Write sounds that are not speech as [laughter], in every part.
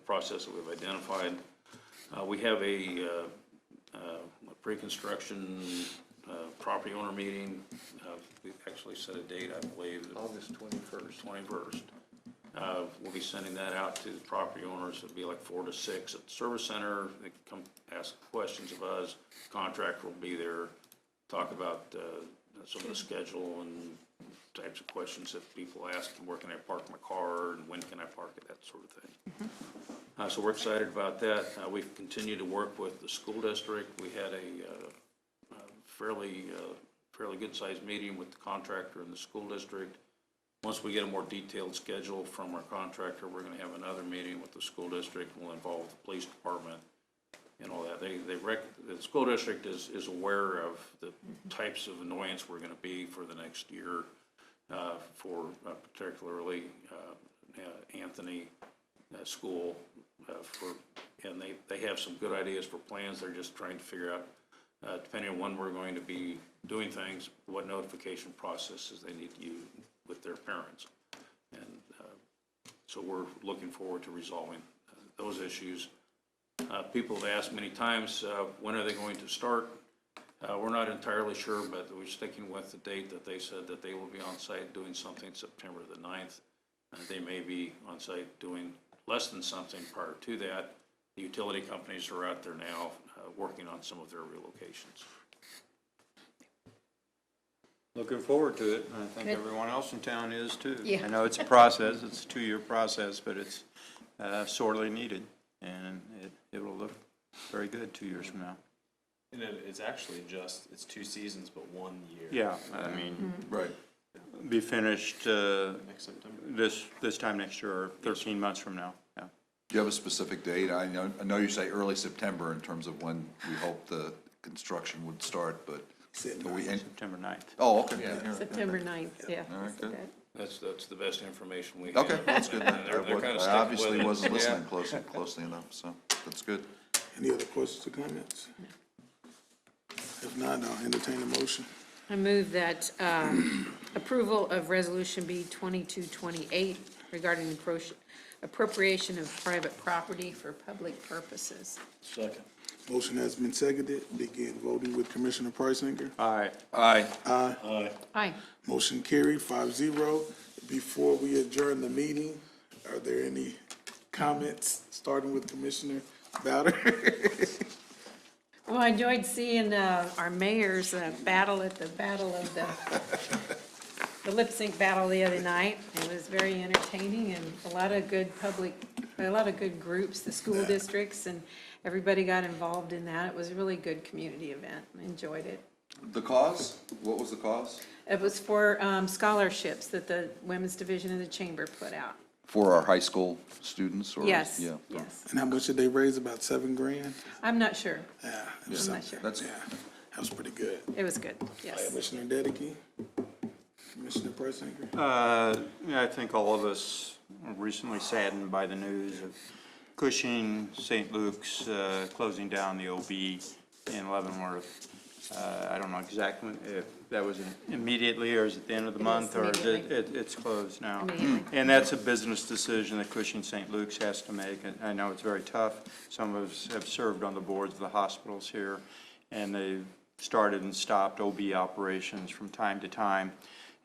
process that we've identified. Uh, we have a, uh, uh, a pre-construction, uh, property owner meeting. Uh, we've actually set a date, I believe, August twenty-first. twenty-first. Uh, we'll be sending that out to the property owners. It'll be like four to six at the service center. They can come ask questions of us. Contractor will be there, talk about, uh, some of the schedule and types of questions that people ask, and where can I park my car, and when can I park it, that sort of thing. Uh, so we're excited about that. Uh, we've continued to work with the school district. We had a, uh, uh, fairly, uh, fairly good-sized meeting with the contractor and the school district. Once we get a more detailed schedule from our contractor, we're gonna have another meeting with the school district, we'll involve the police department and all that. They, they rec, the school district is, is aware of the types of annoyance we're gonna be for the next year, uh, for uh, particularly, uh, uh, Anthony, uh, school, uh, for, and they, they have some good ideas for plans, they're just trying to figure out, uh, depending on when we're going to be doing things, what notification processes they need to use with their parents. And, uh, so we're looking forward to resolving uh, those issues. Uh, People have asked many times, uh, when are they going to start? Uh, We're not entirely sure, but we're sticking with the date that they said that they will be on site doing something September the 9th. Uh, They may be on site doing less than something prior to that. The utility companies are out there now uh, working on some of their relocations. Looking forward to it, and I think Good. everyone else in town is too. Yeah. I know it's a process, it's a two-year process, but it's uh, sorely needed, and it, it will look very good two years from now. And it, it's actually just, it's two seasons, but one year. Yeah, I mean, Right. be finished uh, Next September. this, this time next year, or 13 months from now, yeah. Do you have a specific date? I know, I know you say early September in terms of when we hope the construction would start, but do we, end- September 9th. oh, okay. yeah, yeah. September 9th, yeah. All right, good. That's, that's the best information we have. Okay, that's good. And I they're- they're kinda sticking I with obviously it. wasn't listening closely, closely enough, so that's good. Any other questions or comments? If not, I'll entertain a motion. I move that um, approval of Resolution B 2228 regarding the appro- appropriation of private property for public purposes. Motion has been seconded. Begin voting with Commissioner Priceinger. All right, Aye. Aye. Motion carried, five zero. Before we adjourn the meeting, are there any comments, starting with Commissioner Bowder? [laughs] Well, Oh, I enjoyed seeing uh, our mayor's uh, battle at the Battle of the, the lip sync battle the other night. It was very entertaining and a lot of good public, a lot of good groups, the school districts, and everybody got involved in that. It was a really good community event. I Enjoyed it. The cause? What was the cause? It was for um, scholarships that the Women's Division of the Chamber put out. For our high school students or? Yes, Yeah. yes. And how much did they raise? About seven grand? I'm not sure. Yeah, it was I'm not something. sure. That's, Yeah, that was pretty good. It was good, yes. Commissioner Dedeky? Commissioner Priceinger? Uh, yeah, I think all of us are recently saddened by the news of Cushing, St. Luke's, uh, closing down the OB in Leavenworth. Uh, I don't know exactly if that was immediately or is it the end of the It is month or is it, immediately. it, it's closed now. Immediately. And that's a business decision that Cushing St. Luke's has to make. And I know it's very tough. Some of us have served on the boards of the hospitals here, and they've started and stopped OB operations from time to time.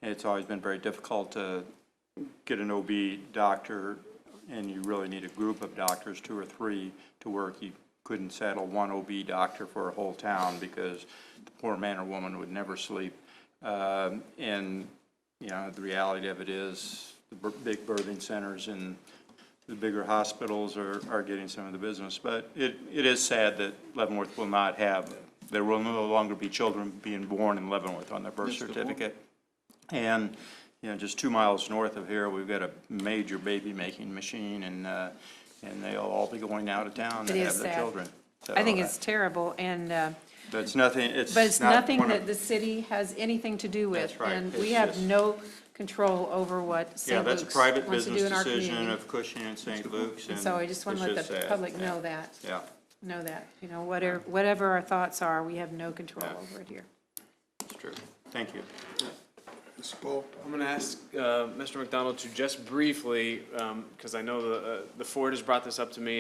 And it's always been very difficult to get an OB doctor, and you really need a group of doctors, two or three, to work. You couldn't saddle one OB doctor for a whole town because the poor man or woman would never sleep. Um, And, you know, the reality of it is, the bir- big birthing centers and the bigger hospitals are, are getting some of the business. But it, it is sad that Leavenworth will not have, there will no longer be children being born in Leavenworth on their birth certificate. And, you know, just two miles north of here, we've got a major baby-making machine, and, uh, and they'll all be going out of town to It is have their sad. children. I think So, uh, it's terrible, and, uh, But it's nothing, it's but it's not nothing one of- that the city has anything to do with. That's right. And It's we have just- no control over what Yeah, St. that's Luke's a wants private to do business in our decision community. of Cushing and St. Luke's, and. So I just want to it's let the sad. public Yeah. know that, Yeah, know that, you know, whatever, whatever our thoughts are, we have no control Yeah. over it here. it's true. Thank you. Mr. Paul? I'm gonna ask, uh, Mr. McDonald to just briefly, um, cause I know the, uh, the Ford has brought this up to me